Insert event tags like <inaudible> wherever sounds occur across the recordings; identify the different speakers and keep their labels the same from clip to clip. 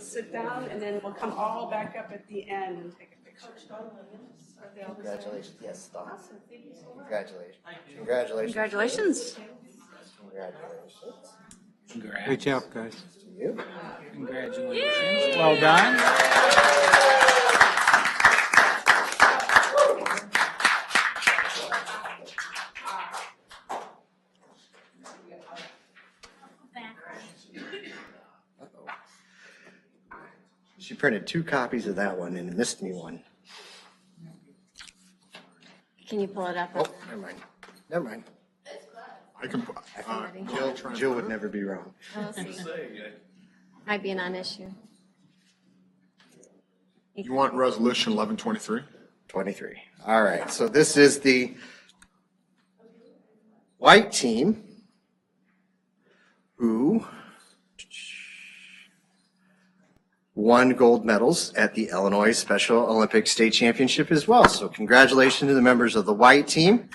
Speaker 1: sit down, and then we'll come all back up at the end and take a picture.
Speaker 2: Congratulations, yes, Dawn.
Speaker 1: Awesome, thank you so much.
Speaker 2: Congratulations. Congratulations.
Speaker 3: Congratulations.
Speaker 2: Congratulations
Speaker 4: Congrats.
Speaker 5: Great job, guys.
Speaker 2: to you.
Speaker 4: Congratulations. Well done.
Speaker 2: She printed two copies of that one and missed me one.
Speaker 3: Can you pull it up? <laughs>
Speaker 2: Oh, never mind. Never mind.
Speaker 6: I can, uh,
Speaker 3: Already.
Speaker 2: Jill, Jill would never be wrong.
Speaker 3: We'll see. Might be a non-issue.
Speaker 6: you want resolution eleven twenty-three?
Speaker 2: 23. All right, so this is the white team who won gold medals at the Illinois Special Olympic State Championship as well. So congratulations to the members of the white team.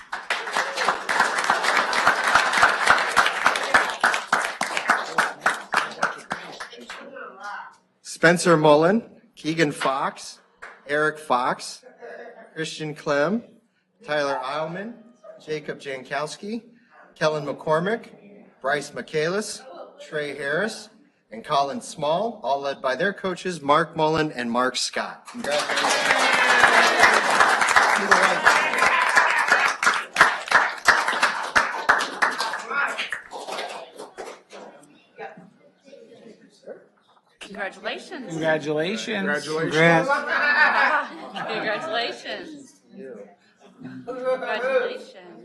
Speaker 2: Spencer Mullen, Keegan Fox, Eric Fox, Christian Clem, Tyler Eilman, Jacob Jankowski, Kellen McCormick, Bryce Michaelis, Trey Harris, and Colin Small, all led by their coaches, Mark Mullen and Mark Scott. Congratulations.
Speaker 3: Congratulations.
Speaker 4: Congratulations.
Speaker 6: Congratulations.
Speaker 5: Congrats.
Speaker 3: Congratulations.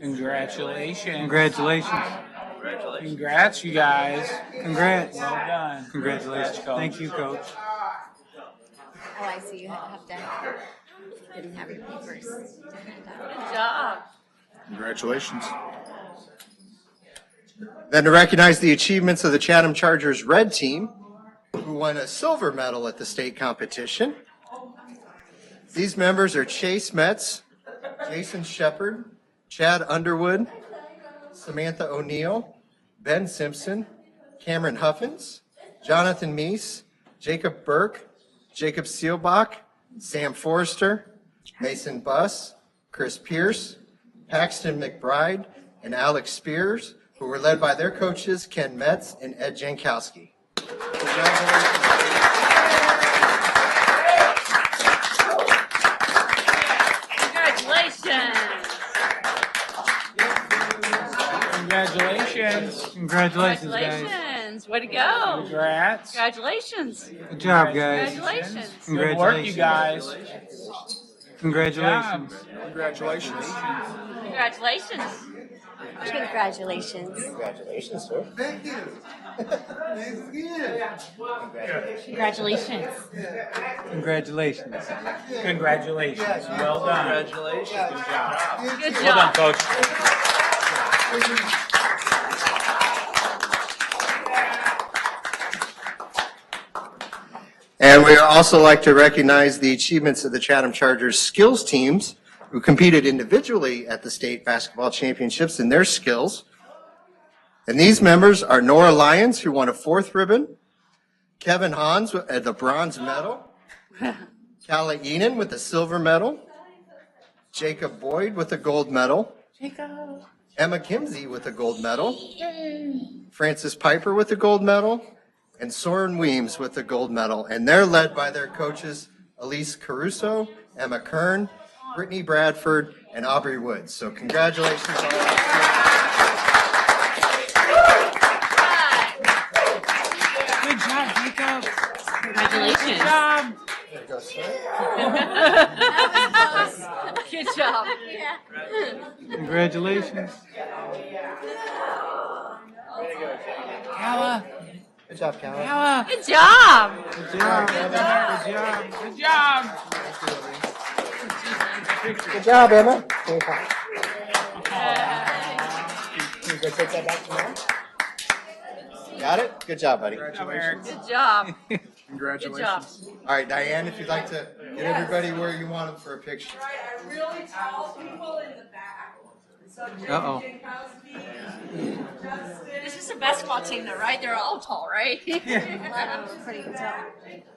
Speaker 3: Congratulations.
Speaker 4: Congratulations.
Speaker 5: Congratulations.
Speaker 4: Congrats, you guys.
Speaker 5: Congrats.
Speaker 4: Well done.
Speaker 5: Congratulations.
Speaker 4: Congrats, coach.
Speaker 5: Thank you, coach.
Speaker 3: Oh, I see you have to, didn't have your papers. to hand out. Good job.
Speaker 6: Congratulations.
Speaker 2: Then to recognize the achievements of the Chatham Chargers Red Team, who won a silver medal at the state competition. These members are Chase Metz, Jason Shepard, Chad Underwood, Samantha O'Neill, Ben Simpson, Cameron Huffins, Jonathan Meese, Jacob Burke, Jacob Seelbach, Sam Forrester, Mason Buss, Chris Pierce, Paxton McBride, and Alex Spears, who were led by their coaches Ken Metz and Ed Jankowski.
Speaker 3: Congratulations.
Speaker 4: Congratulations.
Speaker 5: Congratulations, guys.
Speaker 3: Congratulations. Way to go.
Speaker 4: Congrats.
Speaker 3: Congratulations.
Speaker 5: Good job, guys.
Speaker 3: Congratulations.
Speaker 4: Good work, you
Speaker 5: Congratulations.
Speaker 4: guys.
Speaker 5: Congratulations.
Speaker 4: Jobs.
Speaker 6: Congratulations.
Speaker 3: Congratulations. Congratulations.
Speaker 2: Congratulations, sir. Thank you. <laughs>
Speaker 3: Congratulations.
Speaker 5: Congratulations.
Speaker 4: Congratulations. Well done.
Speaker 3: Good
Speaker 4: Well done,
Speaker 3: job.
Speaker 4: coach.
Speaker 2: And we also like to recognize the achievements of the Chatham Chargers skills teams who competed individually at the state basketball championships in their skills. And these members are Nora Lyons, who won a fourth ribbon, Kevin Hans with uh, the bronze medal, Calla Enan with the silver medal, Jacob Boyd with the gold medal, Emma Kimsey with the gold medal, Francis Piper with the gold medal, and Soren Weems with the gold medal. And they're led by their coaches Elise Caruso, Emma Kern, Brittany Bradford, and Aubrey Woods. So congratulations. all.
Speaker 4: Good job, Jacob.
Speaker 3: Congratulations.
Speaker 4: Job.
Speaker 3: Good job.
Speaker 5: Congratulations.
Speaker 4: Calla.
Speaker 2: Good job, Cal.
Speaker 4: Calla.
Speaker 3: <laughs> Good job.
Speaker 5: Good job. Good job.
Speaker 4: Good job.
Speaker 2: Good job, Emma. Got it? Good job, buddy. All
Speaker 4: Eric. <laughs>
Speaker 3: Good job. Good
Speaker 6: Congratulations.
Speaker 3: job.
Speaker 2: right, Diane, if you'd like to get everybody where you want them for a picture.
Speaker 1: Right, I really tall people in the back. So Jake
Speaker 5: Uh-oh.
Speaker 1: Jankowski, Justin.
Speaker 3: This is a basketball team though, right? They're all tall, right?
Speaker 5: Yeah.
Speaker 3: Pretty tall.